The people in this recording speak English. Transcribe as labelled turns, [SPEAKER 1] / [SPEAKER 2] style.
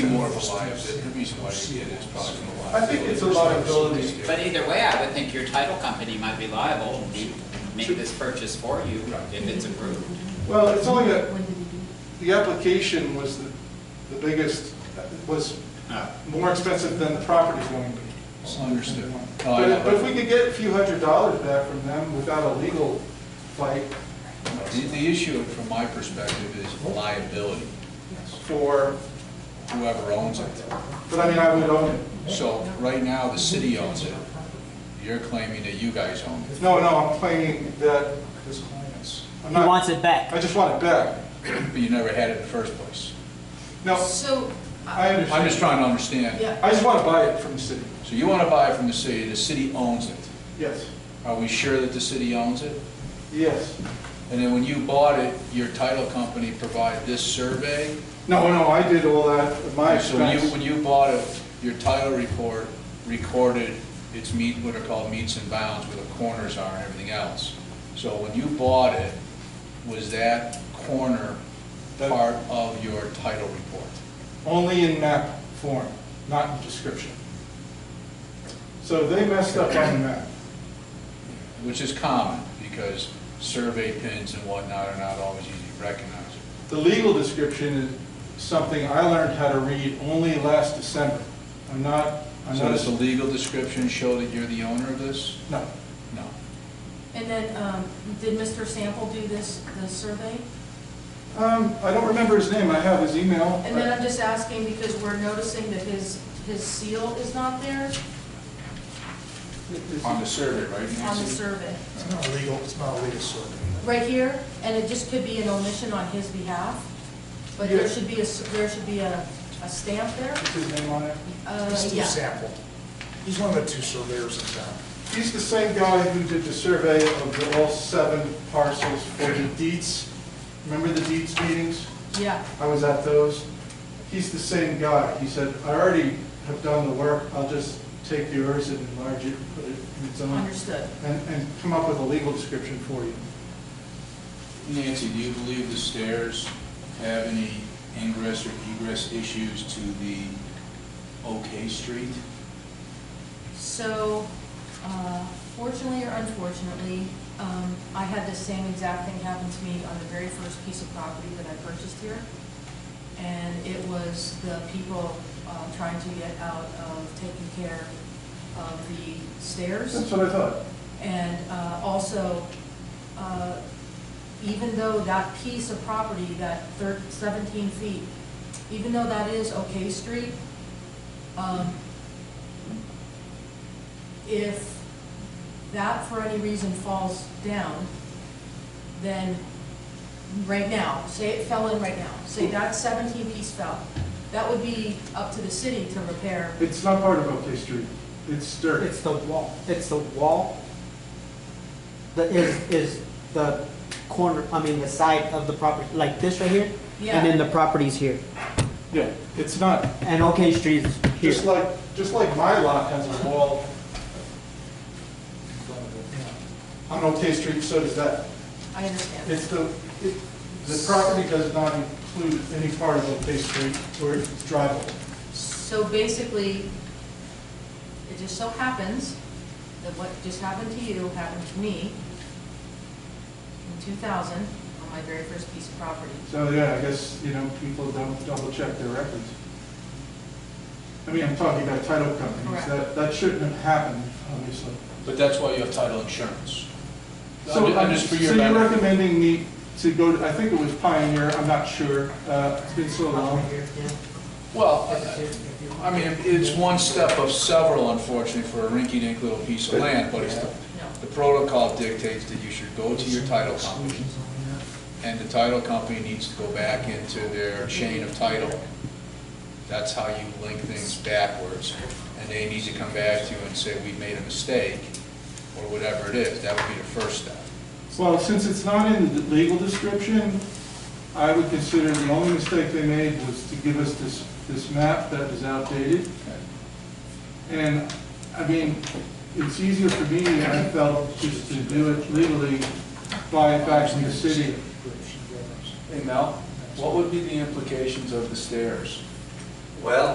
[SPEAKER 1] more of a liability, the reason why they did it is probably from a
[SPEAKER 2] I think it's a
[SPEAKER 1] liability.
[SPEAKER 2] liability.
[SPEAKER 3] But either way, I would think your title company might be liable and be- make this purchase for you if it's approved.
[SPEAKER 2] Well, it's only a, the application was the, the biggest, was more expensive than the property's going to be.
[SPEAKER 1] Understood. No, I
[SPEAKER 2] But if-
[SPEAKER 1] know.
[SPEAKER 2] but if we could get a few hundred dollars back from them without a legal fight
[SPEAKER 1] The, the issue from my perspective is liability,
[SPEAKER 2] for,
[SPEAKER 1] whoever owns it.
[SPEAKER 2] but I mean, I would own it.
[SPEAKER 1] So right now, the city owns it. You're claiming that you guys own it.
[SPEAKER 2] No, no, I'm claiming that, I'm
[SPEAKER 4] He
[SPEAKER 2] not-
[SPEAKER 4] wants it back.
[SPEAKER 2] I just want it back.
[SPEAKER 1] But you never had it in the first place.
[SPEAKER 2] No,
[SPEAKER 5] So,
[SPEAKER 2] I
[SPEAKER 5] uh,
[SPEAKER 1] I'm just
[SPEAKER 2] understand.
[SPEAKER 1] trying to understand.
[SPEAKER 5] Yeah.
[SPEAKER 2] I just want to buy it from the city.
[SPEAKER 1] So you want to buy it from the city, the city owns it.
[SPEAKER 2] Yes,
[SPEAKER 1] Are we sure that the city owns it?
[SPEAKER 2] yes.
[SPEAKER 1] And then when you bought it, your title company provided this survey?
[SPEAKER 2] No, no, I did all that at my
[SPEAKER 1] So when you,
[SPEAKER 2] expense.
[SPEAKER 1] when you bought it, your title report recorded its meet, what are called meets and bounds, where the corners are and everything else. So when you bought it, was that corner
[SPEAKER 2] That-
[SPEAKER 1] part of your title report?
[SPEAKER 2] Only in map form, not in description. So they messed up on the map.
[SPEAKER 1] Which is common, because survey pins and whatnot are not always easy to recognize.
[SPEAKER 2] The legal description is something I learned how to read only last December. I'm not, I'm
[SPEAKER 1] So
[SPEAKER 2] not,
[SPEAKER 1] does the
[SPEAKER 2] a-
[SPEAKER 1] legal description show that you're the owner of this?
[SPEAKER 2] no,
[SPEAKER 1] No.
[SPEAKER 5] and then, um, did Mr. Sample do this, the survey?
[SPEAKER 2] Um, I don't remember his name, I have his email.
[SPEAKER 5] And then I'm just asking because we're noticing that his, his seal is not there
[SPEAKER 2] Is-
[SPEAKER 1] On the survey, right, Nancy?
[SPEAKER 5] on the survey.
[SPEAKER 6] It's not illegal, it's not a legal survey.
[SPEAKER 5] Right here, and it just could be an omission on his behalf, but there
[SPEAKER 2] Yeah.
[SPEAKER 5] should be a, s- there should be a, a stamp there.
[SPEAKER 2] is his name on it?
[SPEAKER 5] Uh,
[SPEAKER 6] Steve
[SPEAKER 5] yeah.
[SPEAKER 6] Sample. He's one of the two surveyors in town.
[SPEAKER 2] He's the same guy who did the survey of the all seven parcels for the deeds. Remember the deeds meetings?
[SPEAKER 5] Yeah,
[SPEAKER 2] I was at those. He's the same guy. He said, I already have done the work, I'll just take yours and enlarge it and put it in its own,
[SPEAKER 5] understood.
[SPEAKER 2] and, and come up with a legal description for you.
[SPEAKER 1] Nancy, do you believe the stairs have any ingress or egress issues to the OK Street?
[SPEAKER 5] So, uh, fortunately or unfortunately, um, I had the same exact thing happen to me on the very first piece of property that I purchased here. And it was the people um, trying to get out of taking care of the
[SPEAKER 2] That's
[SPEAKER 5] stairs.
[SPEAKER 2] what I thought.
[SPEAKER 5] And uh, also, uh, even though that piece of property, that thir- 17 feet, even though that is OK Street, um, if that for any reason falls down, then right now, say it fell in right now, say that 17 piece fell, that would be up to the city to repair.
[SPEAKER 2] It's not part of OK Street. It's dirt.
[SPEAKER 4] It's the wall, it's the wall that is, is the corner, I mean, the side of the property, like this right here?
[SPEAKER 5] Yeah.
[SPEAKER 4] And then the property's here.
[SPEAKER 2] Yeah, it's not.
[SPEAKER 4] And OK Street is here.
[SPEAKER 2] Just like, just like my lot has a wall in front of it. on OK Street, so does that.
[SPEAKER 5] I understand.
[SPEAKER 2] It's the, it- the property does not include any part of OK Street or it's drivable.
[SPEAKER 5] So basically, it just so happens that what just happened to you happened to me in 2000 on my very first piece of property.
[SPEAKER 2] So, yeah, I guess, you know, people don't double check their records. I mean, I'm talking about title companies,
[SPEAKER 5] Correct.
[SPEAKER 2] that, that shouldn't have happened, obviously.
[SPEAKER 1] But that's why you have title insurance.
[SPEAKER 2] So, um,
[SPEAKER 1] I'm just for your
[SPEAKER 2] So you're
[SPEAKER 1] benefit.
[SPEAKER 2] recommending me to go, to I think it was Pioneer, I'm not sure, uh, it's been so long.
[SPEAKER 1] Well, I I mean, it's one step of several, unfortunately, for a rinky-dink little piece of land, but it's, the
[SPEAKER 5] No.
[SPEAKER 1] the protocol dictates that you should go to your title company, and the title company needs to go back into their chain of title. That's how you link things backwards, and they need to come back to you and say, we made a mistake, or whatever it is, that would be the first step.
[SPEAKER 2] Well, since it's not in the legal description, I would consider the only mistake they made was to give us this, this map that is outdated. And, I mean, it's easier for me, I felt, just to do it legally, buy it back from the city.
[SPEAKER 1] Hey, Mel, what would be the implications of the stairs?
[SPEAKER 7] Well,